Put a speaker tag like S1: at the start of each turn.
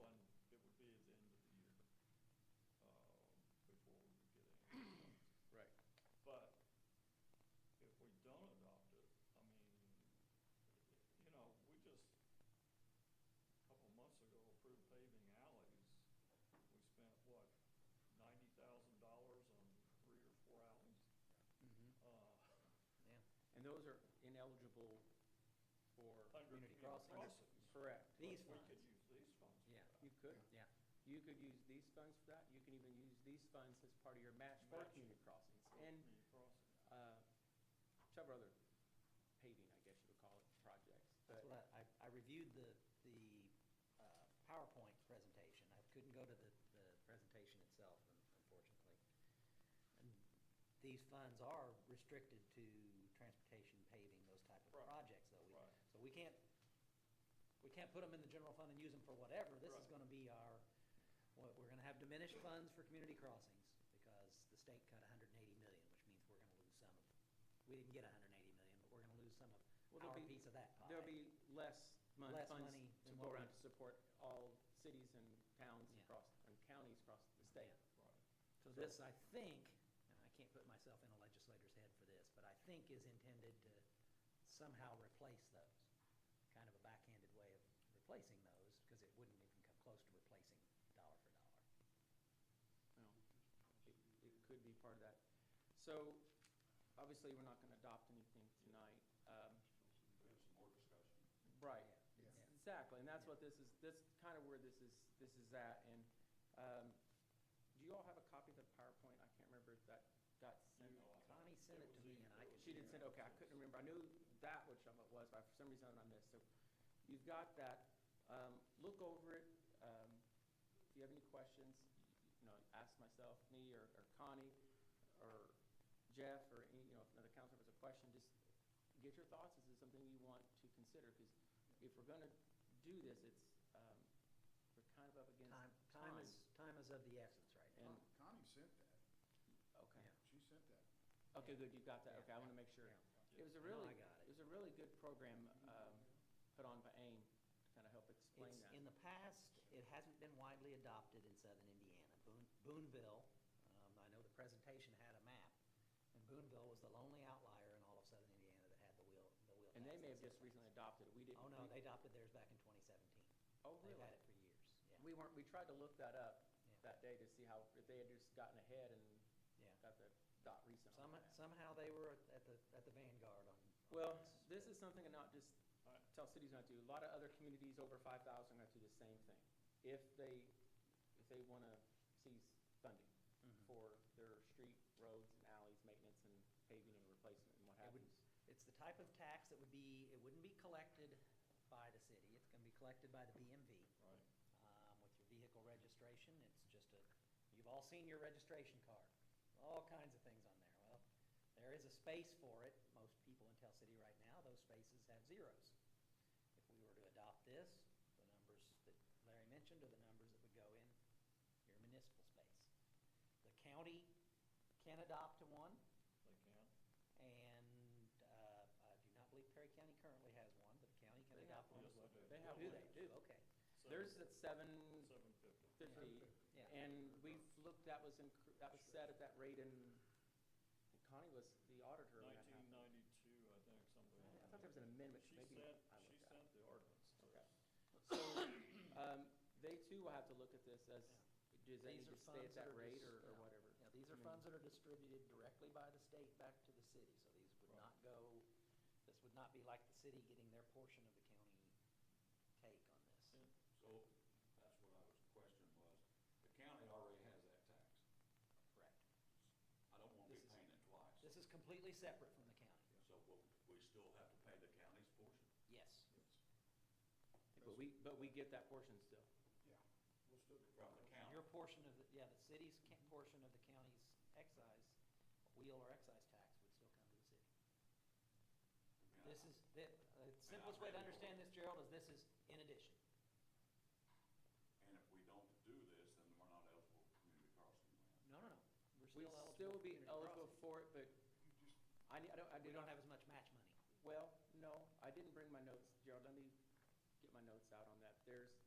S1: uh,
S2: Mm-hmm.
S1: Uh,
S2: those are ineligible for
S1: Under
S2: community
S1: community
S2: crossings.
S1: crossings.
S2: Correct.
S3: These
S1: We could
S3: funds.
S1: use these funds. for
S2: Yeah,
S1: that.
S2: you could.
S4: Yeah.
S2: You could use these funds for that. You can even use these funds as part of your match for
S1: Match.
S2: community crossings.
S1: For
S2: And
S1: community crossings.
S2: uh, several other paving, I guess you would call it, projects.
S3: That's
S2: But-
S3: what I, I- I reviewed the, the uh, PowerPoint presentation. I couldn't go to the, the presentation itself, un- unfortunately. And These funds are restricted to transportation, paving, those type of
S1: Right.
S3: projects, though. We-
S1: Right.
S3: So we can't, we can't put them in the general fund and use them for whatever. This is
S1: Right.
S3: gonna be our, what, we're gonna have diminished funds for community crossings, because the state cut hundred and eighty million, which means we're gonna lose some of, we didn't get hundred and eighty million, but we're gonna lose some
S2: Well,
S3: of
S2: there'll
S3: our
S2: be-
S3: piece of that pie.
S2: There'll be less mon-
S3: Less
S2: funds
S3: money
S2: to
S3: than
S2: go
S3: what
S2: around
S3: we-
S2: to support all cities and towns
S3: Yeah.
S2: across, and counties across the state.
S3: Yeah.
S1: Right.
S3: So this, I think, and I can't put myself in a legislator's head for this, but I think is intended to somehow replace those. Kind of a backhanded way of replacing those, because it wouldn't even come close to replacing dollar for dollar.
S2: Well, It it could be part of that. So, obviously, we're not gonna adopt anything tonight. Um,
S1: We have some more discussion.
S2: Right,
S3: Yeah.
S2: It's-
S3: Yeah.
S2: exactly, and that's what this is, that's kind of where this is, this is at, and, um, do you all have a copy of the PowerPoint? I can't remember if that got sent.
S1: No, I don't.
S3: Connie sent it to me, and I
S1: was
S3: could-
S2: She did send, okay, I couldn't remember, I knew that which of it was, but for some reason I missed, so you've got that, um, look over it, um, if you have any questions, you know, ask myself, me, or, or Connie, or Jeff, or any, you know, if another council member has a question, just get your thoughts, is this something you want to consider? Because if we're gonna do this, it's, um, we're kind of up against time.
S3: Time, time is, time is of the essence right now.
S2: And-
S4: Con- Connie sent that.
S2: Okay,
S3: Yeah.
S4: She sent that.
S2: okay, good, you got that,
S3: Yeah.
S2: okay, I wanna make sure. It
S3: Yeah.
S2: was a
S3: I know
S2: really,
S3: I got it.
S2: it was a really good program, um, put on by AIM to kind of help explain
S3: It's,
S2: that.
S3: in the past, it hasn't been widely adopted in southern Indiana. Boone- Booneville, um, I know the presentation had a map, and Booneville was the lonely outlier in all of southern Indiana that had the wheel, the wheel.
S2: And they
S3: tax
S2: may have
S3: incentive
S2: just recently
S3: plans.
S2: adopted it. We didn't.
S3: Oh, no,
S2: we-
S3: they adopted theirs back in twenty seventeen.
S2: Oh,
S3: They've
S2: really? Mm-hmm.
S3: had it for years, yeah.
S2: We weren't, we tried to look that up
S3: Yeah.
S2: that day to see how, if they had just gotten ahead and
S3: Yeah.
S2: got the dot recent on
S3: Some-
S2: that.
S3: Somehow they were at the, at the vanguard on. on
S2: Well, this is something and not just uh,
S1: All right.
S2: tell cities not to, do. a lot of other communities over five thousand are gonna do the same thing. If they, if they wanna seize funding
S3: Mhm.
S2: for their street, roads and alleys, maintenance and paving and replacement and what
S3: It would-
S2: happens.
S3: It's the type of tax that would be, it wouldn't be collected by the city, it's gonna be collected by the BMV.
S1: Right.
S3: um, with your vehicle registration, it's just a, you've all seen your registration card, all kinds of things on there. Well, there is a space for it, most people in Tell City right now, those spaces have zeros. If we were to adopt this, the numbers that Larry mentioned are the numbers that would go in your municipal space. The county can adopt to one,
S1: They can.
S3: and, uh, I do not believe Perry County currently has one, but the county can
S2: They have
S3: adopt one
S2: one.
S3: as well.
S1: Yes,
S2: They have
S3: Do
S2: one.
S3: they? Do, okay.
S2: There's at seven
S1: Seven fifty.
S2: fifty,
S3: Yeah.
S2: and we've looked, that was in, that was set at that rate in, Connie was the auditor when that happened.
S1: Nineteen ninety-two, I think, something.
S2: I
S1: like
S2: thought there was an
S1: that.
S2: amendment,
S1: She
S2: maybe
S1: sent,
S2: I
S1: she
S2: looked at it.
S1: sent the ordinance. to
S2: Okay.
S1: us.
S2: So, um, they too will have to look at this as, does that need
S3: These are
S2: to stay at
S3: funds that
S2: that
S3: are
S2: rate
S3: dis-
S2: or, or
S3: yeah.
S2: whatever?
S3: Yeah, these are
S2: I mean,
S3: funds that are distributed directly by the state back to the city, so these would
S1: Right.
S3: not go, this would not be like the city getting their portion of the county take on this.
S1: And
S5: So, that's what I was, question was, the county already has that tax.
S3: Correct.
S5: I don't wanna be
S3: This is-
S5: paying it twice.
S3: This is completely separate from the county.
S5: So, will we still have to pay the county's portion?
S3: Yes.
S2: But we, but we get that portion still.
S4: Yeah, we'll still get
S5: From the county?
S3: Your portion of the, yeah, the city's ca- portion of the county's excise, wheel or excise tax would still come to the city.
S5: I mean, I-
S3: This is, the the simplest way to understand this, Gerald, is this is in addition.
S5: And if we don't do this, then we're not eligible for community crossing land.
S3: No, no, no.
S2: We
S3: We're still eligible
S2: still
S3: for
S2: be
S3: community
S2: eligible
S3: crossing.
S2: for it, but
S4: You just,
S2: I, need- I don't, I
S3: We
S2: did
S3: don't
S2: not
S3: have as much match money.
S2: Well, no, I didn't bring my notes, Gerald, let me get my notes out on that. There's,